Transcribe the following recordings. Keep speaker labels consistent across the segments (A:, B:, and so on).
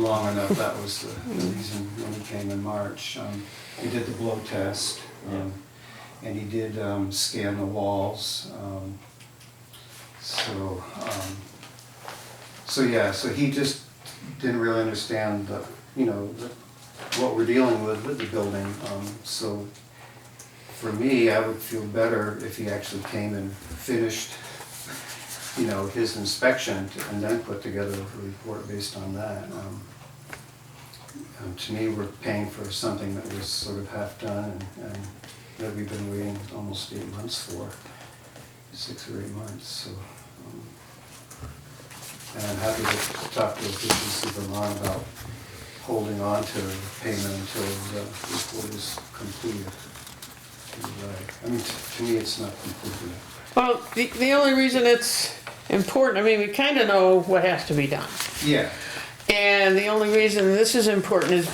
A: long enough, that was the the reason when he came in March. Um, We did the blow test, um, and he did um, scan the walls. um, So, um, so yeah, so he just didn't really understand the, you know, the- what we're dealing with with the building. Um, So for me, I would feel better if he actually came and finished, you know, his inspection and then put together a report based on that. Um, um, To me, we're paying for something that was sort of half-done and- and that we've been waiting almost eight months for, six or eight months, so. um, And I'm happy to talk to Efficiency Vermont about holding on to payment until the report is completed. I mean, t- to me, it's not completely,
B: Well, the, the only reason it's important, I mean, we kind of know what has to be done.
A: yeah,
B: And the only reason this is important is,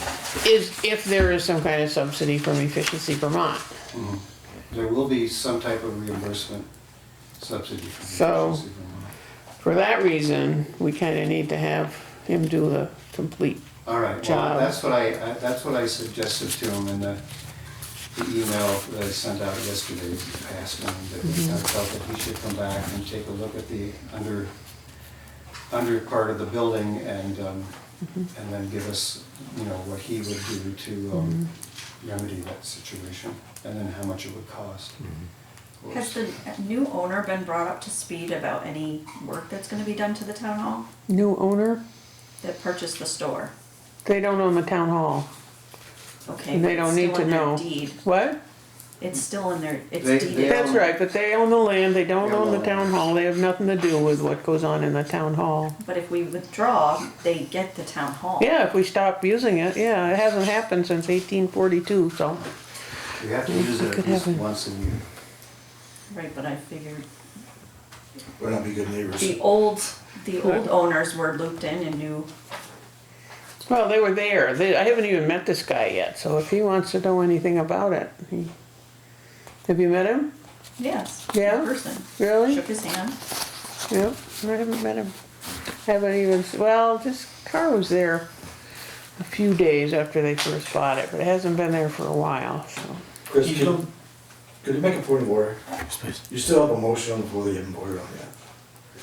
B: is if there is some kind of subsidy from Efficiency Vermont.
A: there will be some type of reimbursement subsidy from
B: So-
A: Efficiency Vermont.
B: For that reason, we kind of need to have him do the complete.
A: All right, well,
B: job.
A: that's what I, I- that's what I suggested to him in the, the email that I sent out yesterday, to ask him that
B: Mm-hmm.
A: I felt that he should come back and take a look at the under, under part of the building and, um,
B: Mm-hmm.
A: and then give us, you know, what he would do to, um,
B: Mm-hmm.
A: remedy that situation, and then how much it would cost. of course.
C: Has the new owner been brought up to speed about any work that's gonna be done to the town hall
B: New owner,
C: that purchased the store?
B: they don't own the town hall.
C: Okay,
B: and They
C: but
B: don't
C: it's
B: need
C: still
B: to
C: in their
B: know.
C: deed.
B: What?
C: It's still in their, it's
A: They-
C: deeded.
A: they
B: That's
A: own-
B: right, but they own the land, they don't
A: They
B: own the
A: own-
B: town hall, they have nothing to do with what goes on in the town hall.
C: But if we withdraw, they get the town hall.
B: Yeah, if we stop using it, yeah, it hasn't happened since eighteen forty-two, so.
A: We have to use it
B: could
A: at least
B: have a-
A: once a year.
C: Right, but I figured
D: We're not be good neighbors.
C: the old, the old owners were looped in and knew,
B: Well, they were there, they, I haven't even met this guy yet, so if he wants to know anything about it, he. Have you met him?
C: yes,
B: Yeah?
C: in person.
B: Really?
C: Shook his hand.
B: Yep, I haven't met him. Haven't even, s- well, this car was there a few days after they first bought it, but it hasn't been there for a while, so.
D: Chris, could you, could you make a point of order? You still have a motion on the floor that you haven't voted on yet.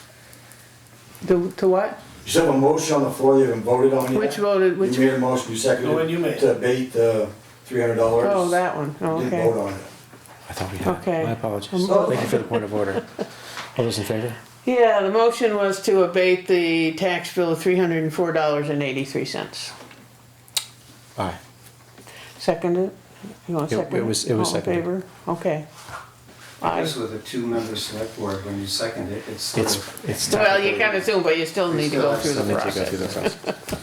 B: To, to what?
D: You still have a motion on the floor you haven't voted on yet.
B: Which voted, which,
D: You made a motion, you
E: The one
D: seconded
E: you
D: it
E: made.
D: to abate the three hundred dollars.
B: oh, that one, oh,
D: You didn't
B: okay.
D: vote on it.
F: I thought we had.
B: Okay. Um,
F: My apologies.
D: Oh.
F: Thank you for the point of order. All those in favor?
B: Yeah, the motion was to abate the tax bill of three hundred and four dollars and eighty-three cents.
F: Aye.
B: Second it? You want
F: It-
B: to
F: it
B: second it?
F: was- it was
B: All in
F: seconded.
B: favor? Okay.
A: I
B: Aye.
A: guess with a two-member select board, when you second it, it's sort
F: It's,
A: of,
F: it's.
B: Well, you kind of assume, but you still need to go through
F: Still
B: the
F: need to go through the
B: process.
F: process.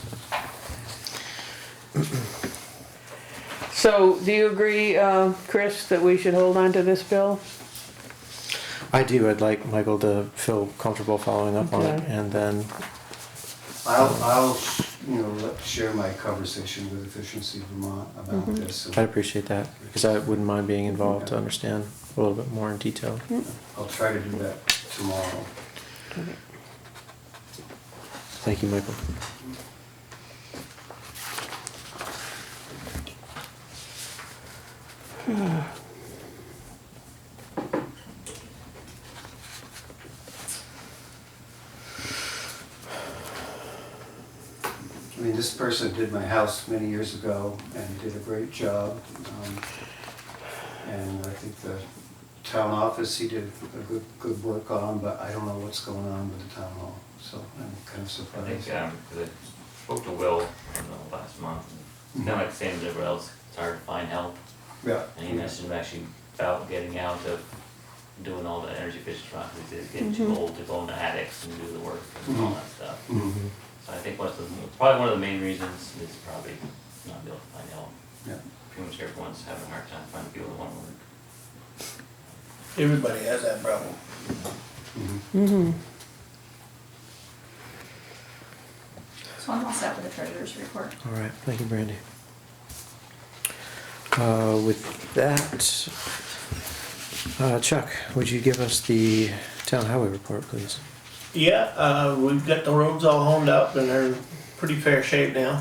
B: So, do you agree, uh, Chris, that we should hold on to this bill?
F: I do, I'd like Michael to feel comfortable following up on it
B: Okay.
F: and then,
A: I'll, I'll, you know, let- share my conversation with Efficiency Vermont about this.
F: I'd
A: and
F: appreciate that because I wouldn't mind being involved to understand a little bit more in detail.
B: Mm.
A: I'll try to do that tomorrow.
F: Thank you, Michael.
A: I mean, this person did my house many years ago and did a great job. um, And I think the town office, he did a good, good work on, but I don't know what's going on with the town hall, so I'm kind of
G: I
A: surprised.
G: think, um, 'cause I spoke to Will you know, last month, and kind of like the same as everyone else, it's hard to find help.
A: Yeah.
G: And he mentioned actually about getting out of doing all the energy efficient stuff, because it's getting too old to go into attics and do the work and all that stuff.
A: Mhm,
G: So I think one of the, it's probably one of the main reasons is probably not be able to find help.
A: yeah.
G: Pretty much everyone's having a hard time finding people that want to work.
E: Everybody has that problem.
A: Mm-hmm.
C: So I'm all set with the treasurer's report.
F: All right, thank you, Brandy. Uh, With that, uh, Chuck, would you give us the town highway report, please?
E: Yeah, uh, we've got the roads all honed up and they're in pretty fair shape now.